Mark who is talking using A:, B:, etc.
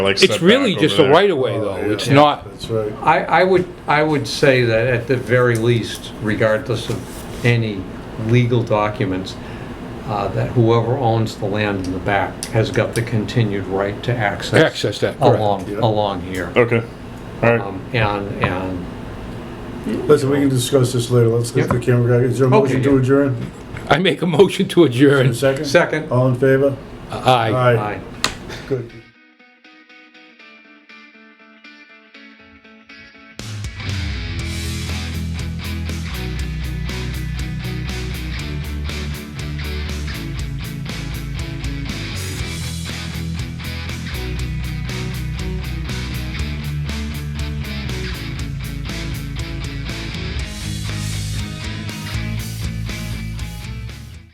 A: Like
B: It's really
A: setback
B: just
A: over
B: a
A: there. Oh,
B: right of way though. It's not,
C: Oh, That's right.
D: I, I would, I would say that at the very least, regardless of any legal documents, uh, that whoever owns the land in the back has got the continued right to access.
B: Access that,
A: Oh,
B: correct.
D: Along,
C: Yeah.
D: along here.
A: Okay, all right.
D: Um, And, and
C: Listen, we can discuss this later. Let's get the camera guy. Is there a
D: Okay,
C: motion to
D: yeah.
C: adjourn?
B: I make a motion to
C: A
B: adjourn.
C: second?
D: second,
C: All in favor?
B: Aye.
D: aye.
C: Good.